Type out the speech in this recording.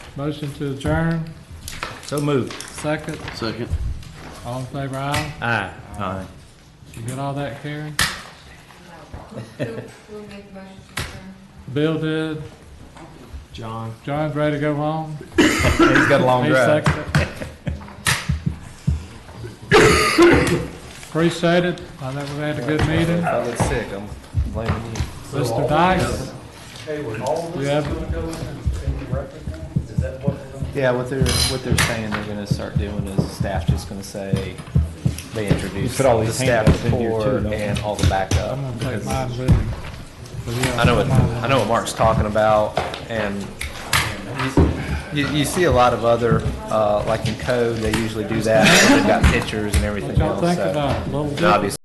Motion to adjourn, So moved. second, Second. all in favor, aye. Aye. Aye. You get all that, Karen? Who, who made the motion to adjourn? Bill did, John. John's ready to go home. He's got a long He drive. seconded. Appreciate it, I think we had a good meeting. I look sick, I'm blaming you. Mr. Dice, Hey, was all of you this have, gonna go in, in the record now? Is that what we're gonna? Yeah, what they're, what they're saying they're gonna start doing is staff just gonna say, they introduce put all the these staff handouts in here too, report don't you? and all the backup. I'm gonna take because mine with me. But yeah, I know what, I know what Mark's talking about and you, you see a lot of other, uh, like in code, they usually do that. They've got pictures and everything What y'all else, think so. about it? Little Obviously,